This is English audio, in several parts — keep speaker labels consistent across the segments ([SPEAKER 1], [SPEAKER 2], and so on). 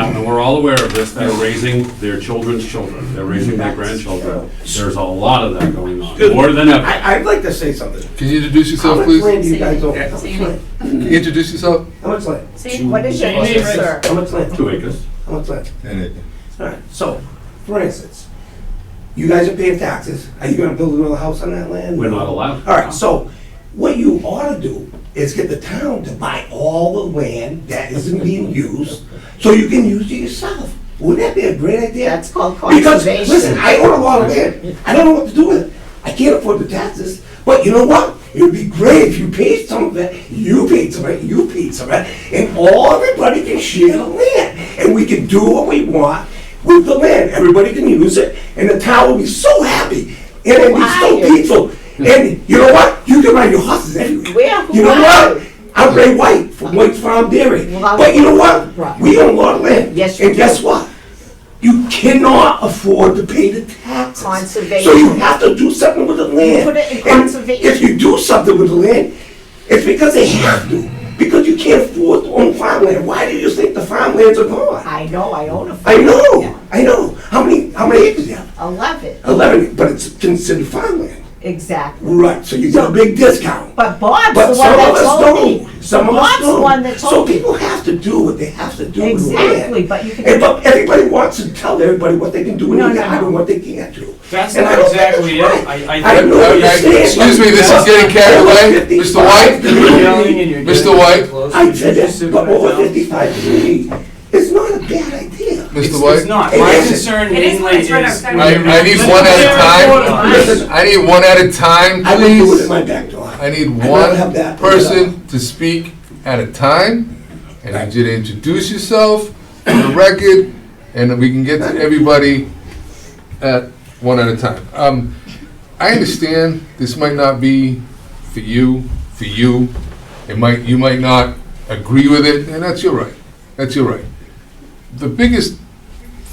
[SPEAKER 1] all aware of this, they're raising their children's children, they're raising their
[SPEAKER 2] That's
[SPEAKER 1] grandchildren.
[SPEAKER 2] true.
[SPEAKER 1] There's a lot of that going on, more than ever.
[SPEAKER 2] I, I'd like to say something.
[SPEAKER 3] Can you introduce
[SPEAKER 2] How
[SPEAKER 3] yourself,
[SPEAKER 2] much
[SPEAKER 3] please?
[SPEAKER 2] land do you guys own? How much
[SPEAKER 4] Sandy.
[SPEAKER 2] land?
[SPEAKER 3] Can you introduce yourself?
[SPEAKER 2] How much land?
[SPEAKER 5] What is your name, sir?
[SPEAKER 2] How much land?
[SPEAKER 1] Two acres.
[SPEAKER 2] How much land?
[SPEAKER 6] And it,
[SPEAKER 2] All right, so, for instance, you guys are paying taxes. Are you gonna build another house on that land?
[SPEAKER 1] We're not allowed.
[SPEAKER 2] All right, so what you ought to do is get the town to buy all the land that isn't being used, so you can use it yourself. Wouldn't that be a great idea?
[SPEAKER 5] That's called
[SPEAKER 2] Because, listen,
[SPEAKER 5] conservation.
[SPEAKER 2] I own a lot of land, I don't know what to do with it, I can't afford the taxes, but you know what? It would be great if you paid some of it, you paid some of it, you paid some of it, and all everybody can share the land, and we can do what we want with the land, everybody can use it, and the town will be so happy, and it'll be so
[SPEAKER 5] Why?
[SPEAKER 2] peaceful, and you know what? You can ride your horses everywhere.
[SPEAKER 5] Where?
[SPEAKER 2] You know
[SPEAKER 5] Why?
[SPEAKER 2] what? I'm Ray White from White Farm Dairy,
[SPEAKER 5] Well,
[SPEAKER 2] but you know what?
[SPEAKER 5] right.
[SPEAKER 2] We own a lot of land.
[SPEAKER 5] Yes, you
[SPEAKER 2] And guess
[SPEAKER 5] do.
[SPEAKER 2] what? You cannot afford to pay the taxes. So
[SPEAKER 5] Conservation.
[SPEAKER 2] you have to do something with the land.
[SPEAKER 5] Put it in
[SPEAKER 2] And
[SPEAKER 5] conservation.
[SPEAKER 2] If you do something with the land, it's because they have to, because you can't afford to own farmland. Why do you think the farmlands are gone?
[SPEAKER 5] I know, I own a farm.
[SPEAKER 2] I
[SPEAKER 5] Yeah.
[SPEAKER 2] know, I know. How many, how many acres do you have?
[SPEAKER 5] Eleven,
[SPEAKER 2] Eleven, but it's considered farmland.
[SPEAKER 5] exactly.
[SPEAKER 2] Right, so you get a big discount.
[SPEAKER 5] But Bob's the
[SPEAKER 2] But
[SPEAKER 5] one
[SPEAKER 2] some of
[SPEAKER 5] that
[SPEAKER 2] us
[SPEAKER 5] told me.
[SPEAKER 2] don't. Some of us
[SPEAKER 5] Bob's the
[SPEAKER 2] don't.
[SPEAKER 5] one that
[SPEAKER 2] So
[SPEAKER 5] told me.
[SPEAKER 2] people have to do what they have to do. with the land.
[SPEAKER 5] Exactly, but you
[SPEAKER 2] And
[SPEAKER 5] can,
[SPEAKER 2] but everybody wants to tell everybody what they can do
[SPEAKER 5] No,
[SPEAKER 2] and
[SPEAKER 5] no,
[SPEAKER 2] not
[SPEAKER 5] no.
[SPEAKER 2] and what they can't do.
[SPEAKER 7] That's
[SPEAKER 2] And I
[SPEAKER 7] not
[SPEAKER 2] don't think
[SPEAKER 7] exactly it.
[SPEAKER 2] that's
[SPEAKER 7] I,
[SPEAKER 2] right.
[SPEAKER 7] I
[SPEAKER 2] I
[SPEAKER 7] think
[SPEAKER 2] know
[SPEAKER 7] you're
[SPEAKER 2] you
[SPEAKER 3] Okay,
[SPEAKER 2] understand.
[SPEAKER 3] Excuse me, this is getting carried away. Mr.
[SPEAKER 7] you're
[SPEAKER 3] White?
[SPEAKER 7] yelling and you're
[SPEAKER 3] Mr.
[SPEAKER 7] getting
[SPEAKER 3] White?
[SPEAKER 7] close.
[SPEAKER 2] I
[SPEAKER 7] You
[SPEAKER 2] said
[SPEAKER 7] just
[SPEAKER 2] that,
[SPEAKER 7] sit
[SPEAKER 2] but
[SPEAKER 7] back
[SPEAKER 2] over
[SPEAKER 7] down.
[SPEAKER 2] fifty-five to me, it's not a bad idea.
[SPEAKER 3] Mr.
[SPEAKER 7] It's-
[SPEAKER 3] White?
[SPEAKER 7] It's not.
[SPEAKER 2] It
[SPEAKER 7] My
[SPEAKER 2] is.
[SPEAKER 7] concern
[SPEAKER 4] It is when
[SPEAKER 7] mainly
[SPEAKER 4] it's right
[SPEAKER 7] is.
[SPEAKER 4] outside.
[SPEAKER 3] I, I need one at a time. I need one at a time,
[SPEAKER 2] I would do it in
[SPEAKER 3] please.
[SPEAKER 2] my back door.
[SPEAKER 3] I need
[SPEAKER 2] I'd rather have
[SPEAKER 3] one
[SPEAKER 2] that.
[SPEAKER 3] person to speak at a time. I need you to introduce yourself on the record, and we can get to everybody at one at a time. Um, I understand this might not be for you, for you. It might, you might not agree with it, and that's your right. That's your right. The biggest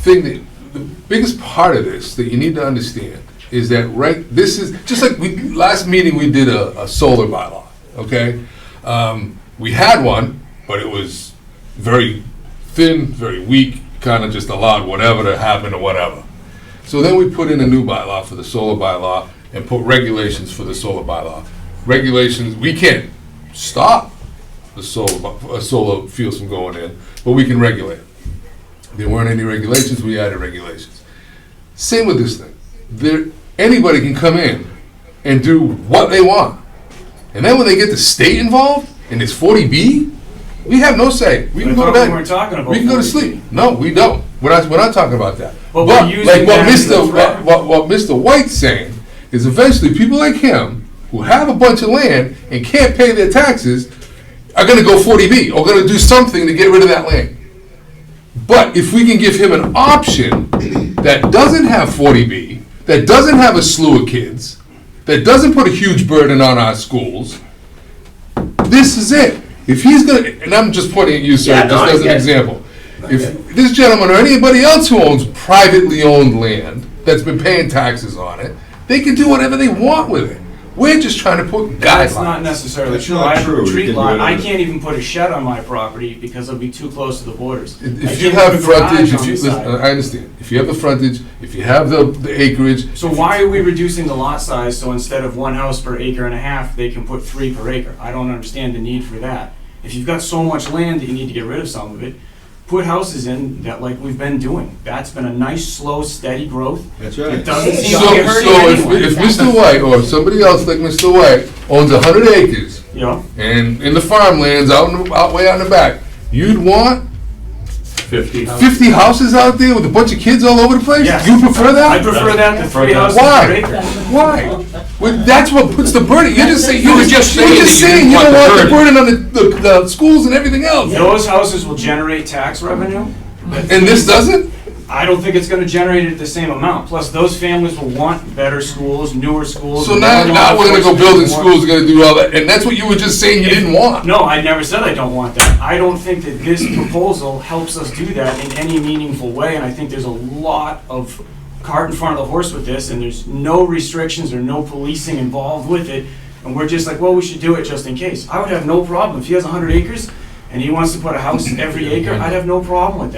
[SPEAKER 3] thing that the biggest part of this that you need to understand is that right this is just like we last meeting we did a, a solar bylaw okay um, we had one but it was very thin very weak kind of just allowed whatever to happen or whatever so then we put in a new bylaw for the solar bylaw and put regulations for the solar bylaw regulations we can't stop the solar bu- uh, solar fuels from going in but we can regulate it there weren't any regulations, we added regulations. Same with this thing. There, anybody can come in and do what they want. And then when they get the state involved in this 40B, we have no say. We
[SPEAKER 7] But
[SPEAKER 3] can go to
[SPEAKER 7] I thought we
[SPEAKER 3] bed.
[SPEAKER 7] weren't talking about
[SPEAKER 3] We can go to
[SPEAKER 7] 40B.
[SPEAKER 3] sleep. No, we don't. We're not, we're not talking about that.
[SPEAKER 7] But we're using
[SPEAKER 3] like what
[SPEAKER 7] that as a
[SPEAKER 3] Mr.
[SPEAKER 7] threat.
[SPEAKER 3] What, what, what Mr. White's saying is eventually people like him who have a bunch of land and can't pay their taxes are going to go 40B or going to do something to get rid of that land. But if we can give him an option that doesn't have 40B, that doesn't have a slew of kids, that doesn't put a huge burden on our schools, this is it. If he's gonna, and I'm just pointing at you, sir,
[SPEAKER 2] Yeah, no,
[SPEAKER 3] just
[SPEAKER 2] I
[SPEAKER 3] as an
[SPEAKER 2] get it.
[SPEAKER 3] example. If this gentleman or anybody else who owns privately owned land that's been paying taxes on it, they can do whatever they want with it. We're just trying to put
[SPEAKER 7] That's not
[SPEAKER 3] guidelines.
[SPEAKER 7] necessarily.
[SPEAKER 6] That's not
[SPEAKER 7] I have a
[SPEAKER 6] true. You
[SPEAKER 7] tree
[SPEAKER 6] can do
[SPEAKER 7] lot.
[SPEAKER 6] it
[SPEAKER 7] I
[SPEAKER 6] on-
[SPEAKER 7] can't even put a shed on my property because it'll be too close to the borders. I
[SPEAKER 3] If you
[SPEAKER 7] can't put
[SPEAKER 3] have
[SPEAKER 7] a garage
[SPEAKER 3] frontage,
[SPEAKER 7] on
[SPEAKER 3] if you,
[SPEAKER 7] the
[SPEAKER 3] listen, uh,
[SPEAKER 7] side.
[SPEAKER 3] I understand. If you have the frontage, if you have the the acreage,
[SPEAKER 7] So why are we reducing the lot size so instead of one house per acre and a half, they can put three per acre? I don't understand the need for that. If you've got so much land that you need to get rid of some of it, put houses in that like we've been doing. That's been a nice, slow, steady growth.
[SPEAKER 6] that's
[SPEAKER 7] It
[SPEAKER 6] right.
[SPEAKER 7] doesn't seem
[SPEAKER 3] So,
[SPEAKER 7] to be hurting
[SPEAKER 3] so if,
[SPEAKER 7] anyone.
[SPEAKER 3] if Mr. White or somebody else like Mr. White owns a hundred acres
[SPEAKER 7] You know?
[SPEAKER 3] and in the farmlands out, in the, out way out in the back, you'd want
[SPEAKER 1] Fifty.
[SPEAKER 3] fifty houses out there with a bunch of kids all over the place.
[SPEAKER 7] Yes.
[SPEAKER 3] You prefer
[SPEAKER 7] I
[SPEAKER 3] that?
[SPEAKER 7] prefer that to three houses per
[SPEAKER 3] Why?
[SPEAKER 7] acre.
[SPEAKER 3] Why? Well, that's what puts the burden. You're just saying. You were just
[SPEAKER 1] saying
[SPEAKER 3] You're just
[SPEAKER 1] that you
[SPEAKER 3] saying
[SPEAKER 1] didn't
[SPEAKER 3] you
[SPEAKER 1] want the
[SPEAKER 3] don't want the burden on the, the, the schools and everything else.
[SPEAKER 7] Those houses will generate tax revenue.
[SPEAKER 3] And this doesn't.
[SPEAKER 7] I don't think it's gonna generate it the same amount. Plus, those families will want better schools, newer schools.
[SPEAKER 3] So now,
[SPEAKER 7] more law
[SPEAKER 3] now we're gonna go
[SPEAKER 7] enforcement,
[SPEAKER 3] building
[SPEAKER 7] more-
[SPEAKER 3] schools. We're gonna do all that, and that's what you were just saying you didn't want.
[SPEAKER 7] No, I never said I don't want that. I don't think that this proposal helps us do that in any meaningful way, and I think there's a lot of cart in front of the horse with this, and there's no restrictions or no policing involved with it, and we're just like, well, we should do it just in case. I would have no problem, if he has hundred acres and he wants to put a house every acre, I'd have no problem with that.